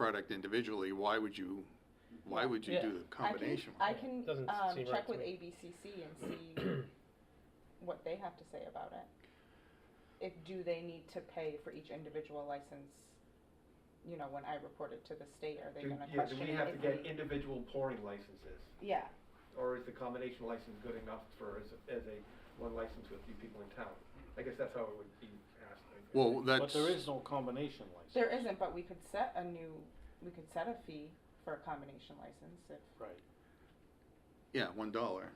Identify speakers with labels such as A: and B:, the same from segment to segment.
A: product individually, why would you, why would you
B: Yeah.
A: do the combination?
C: I
B: Yeah,
C: can,
B: doesn't
C: um,
B: seem right
C: check
B: to
C: with
B: me.
C: ABCC and see what they have to say about it. If, do they need to pay for each individual license, you know, when I report it to the state, are they
D: Do-
C: gonna
D: Yeah,
C: question
D: do
C: it?
D: we have to
C: if
D: get
C: we-
D: individual pouring licenses?
C: Yeah,
D: Or is the combination license good enough for, as, as a, one license with a few people in town? I guess that's how it would be asked. I think.
A: Well,
E: But
A: that's,
E: there is no combination license.
C: there isn't, but we could set a new, we could set a fee for a combination license if,
E: Right.
A: yeah, one dollar.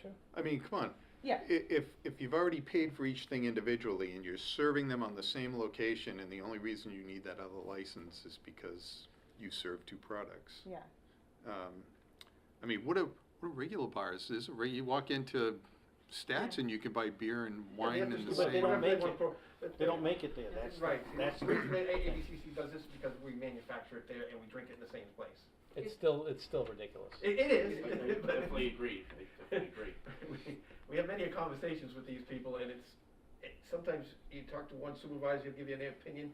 B: Sure.
A: I mean, come on.
C: yeah,
A: I- If, if you've already paid for each thing individually and you're serving them on the same location and the only reason you need that other license is because you serve two products.
C: yeah.
A: Um, I mean, what a, what a regular bar is, is a re- you walk into Stats and you can buy beer and
D: Yeah, they
A: wine
D: have to
A: in the
D: do
E: But they
A: same.
D: what
E: don't
D: if they
E: make
D: want
E: it.
D: pro- but
E: They don't
D: they-
E: make it there, that's,
D: Right,
E: that's.
D: the reason that ABCC does this is because we manufacture it there and we drink it in the same place.
B: It's still, it's still ridiculous.
D: It, it is,
F: I
D: but.
F: definitely agree, I definitely agree.
D: We- We have many conversations with these people and it's, it, sometimes you talk to one supervisor, he'll give you an opinion,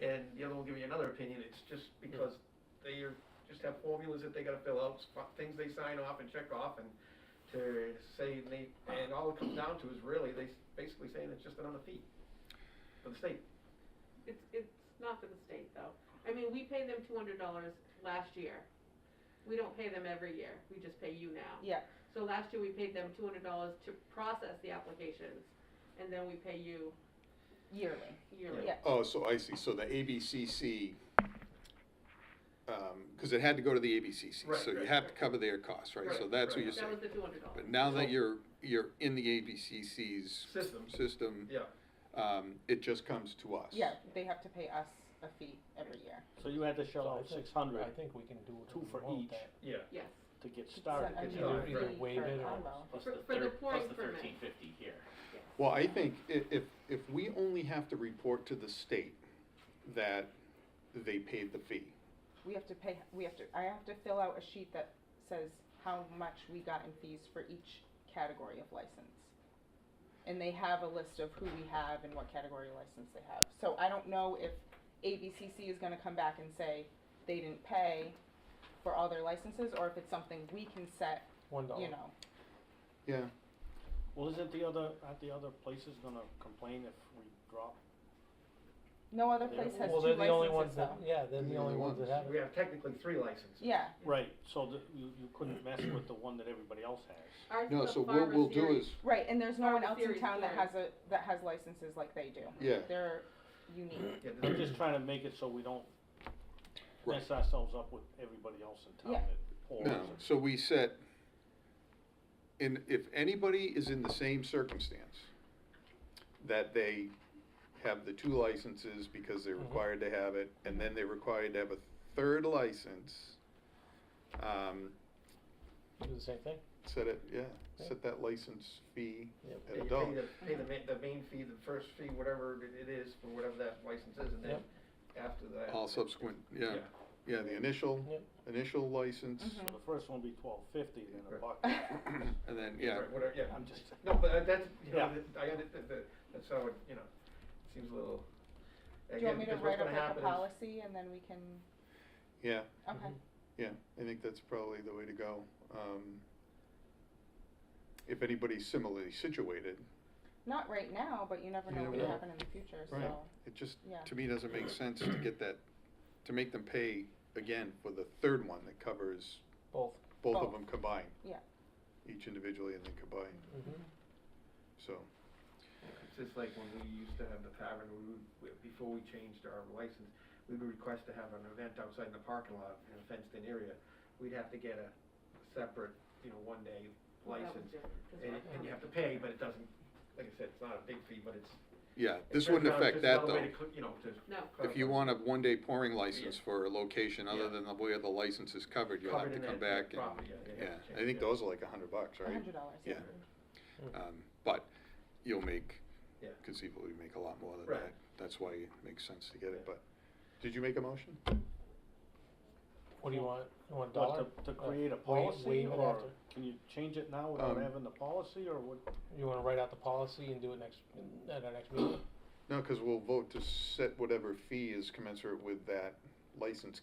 D: and the other will give you another opinion, it's just
B: Hmm.
D: because they are, just have formulas that they gotta fill out, sp- things they sign off and check off and to say, they, and all it comes down to is really, they s- basically saying it's just another fee for the state.
G: It's, it's not for the state though. I mean, we paid them two hundred dollars last year. We don't pay them every year, we just pay you now.
C: Yeah.
G: So last year we paid them two hundred dollars to process the applications and then we pay you
C: Yearly,
G: yearly.
C: yeah,
A: Oh, so I see, so the ABCC, um, cause it had to go to the ABCC,
D: Right,
A: so you
D: right,
A: have to
D: right.
A: cover their costs, right? So
D: Right,
A: that's what
D: right.
A: you're
G: That
A: saying.
G: was the two hundred dollars.
A: But now that you're, you're in the ABCC's
D: System.
A: system,
D: Yeah,
A: um, it just comes to us.
C: yeah, they have to pay us a fee every year.
E: So you had to shell
B: So I
E: out
B: think-
E: six hundred
B: I think we can do.
E: Two
B: what we
E: for
B: want
E: each.
B: there.
D: yeah.
G: Yes,
E: to get
C: It's
E: started.
C: a- a
D: get
C: new
D: started.
B: Either
C: fee
B: waive
C: for a
B: it or-
C: combo.
F: Plus
G: For-
F: the
G: for the
F: thir- plus
G: pouring
F: the
G: permit.
F: thirteen fifty here.
A: Well, I think i- if, if we only have to report to the state that they paid the fee,
C: we have to pay, we have to, I have to fill out a sheet that says how much we got in fees for each category of license. And they have a list of who we have and what category license they have. So I don't know if ABCC is gonna come back and say they didn't pay for all their licenses, or if it's something we can set,
B: One dollar.
C: you know.
A: yeah,
E: Well, isn't the other, aren't the other places gonna complain if we drop?
C: No other
E: Yeah.
C: place has
B: Well,
C: two
B: they're the only ones
C: licenses
B: that,
C: though.
B: yeah, they're the only ones that have
D: We
B: it.
D: have technically three licenses.
C: Yeah,
E: Right, so that you, you couldn't mess with the one that everybody else has.
G: ours
A: no,
G: is a
A: so what we'll
G: farmer's
A: do
G: series.
A: is,
C: right, and there's no
G: Or
C: one
G: the
C: else in
G: series
C: town that
G: four.
C: has a, that has licenses like they do.
A: yeah,
C: They're unique,
D: Yeah,
E: I'm
D: there's-
E: just trying to make it so we don't
A: Right.
E: mess ourselves up with everybody else in town
C: Yeah.
E: that pours.
A: no, so we set, and if anybody is in the same circumstance, that they have the two licenses because they're
B: Mhm.
A: required to have it, and then they're required to have a third license, um,
B: Do the same thing.
A: set it, yeah,
B: Yeah.
A: set that license fee
B: Yep.
A: at
D: Yeah,
A: a
D: you
A: dollar.
D: Pay the, pay the main, the main fee, the first fee, whatever it it is, for whatever that license is, and then after that.
A: All subsequent, yeah,
D: Yeah.
A: yeah, the initial,
B: Yep.
A: initial license,
C: Mhm.
E: So the first one will be twelve fifty, then a
D: Right.
E: buck.
D: Mm-hmm.
A: and then, yeah,
D: Right, Whatever, yeah.
E: I'm just,
D: No, but uh, that's, you know,
E: Yeah.
D: that- I, under- that- that- that's how it, you know, seems a little.
C: Do you want me to write up like a
D: policy?
C: policy and then we can,
A: yeah,
C: okay,
A: yeah, I think that's probably the way to go. Um, If anybody's similarly situated,
C: not right now, but you never
A: You
C: know
A: never
C: what will
A: know.
C: happen in the future, so.
A: Right. it just,
C: Yeah.
A: to me, doesn't make sense to get that, to make them pay again for the third one that covers
B: Both.
A: both of
C: Both.
A: them combined.
C: Yeah.
A: Each individually and then combined, so,
D: It's just like when we used to have the tavern, we would, we- before we changed our license, we would request to have an event outside in the parking lot in a fenced-in area. We'd have to get a separate, you know, one-day
G: Well, that was
D: license,
G: different, 'cause
D: and,
G: we're
D: and you have to
G: farmers.
D: pay, but it doesn't, like I said, it's not a big fee, but it's.
A: yeah,
D: it
A: this
D: turns
A: wouldn't
D: out
A: affect
D: it's
A: that
D: just another way
A: though.
D: to cl- You know, to.
G: No.
A: If you
D: clarify.
A: want a one-day pouring license
D: Yeah.
A: for a location other
D: Yeah.
A: than the way the license is covered, you'll have
D: Covered
A: to
D: in
A: come
D: that- that
A: back and,
D: property, yeah, they
A: yeah,
D: have to
A: I
D: change
A: think
D: it.
A: those are like a hundred bucks,
C: A
A: right?
C: hundred dollars, yeah.
A: Yeah. Um, but you'll make,
D: Yeah.
A: conceivably make a lot more than
D: Right.
A: that. That's why it makes sense to get it,
D: Yeah.
A: but, did you make a motion?
B: What do you want? You want a dollar?
E: but to, to
B: Uh,
E: create a
B: waive-
E: policy
B: waive it
E: or
B: after.
E: can you change it now without
A: Um,
E: having the policy or what?
B: You wanna write out the policy and do it next, at our next meeting?
A: No, cause we'll vote to set whatever fee is commensurate with that licensed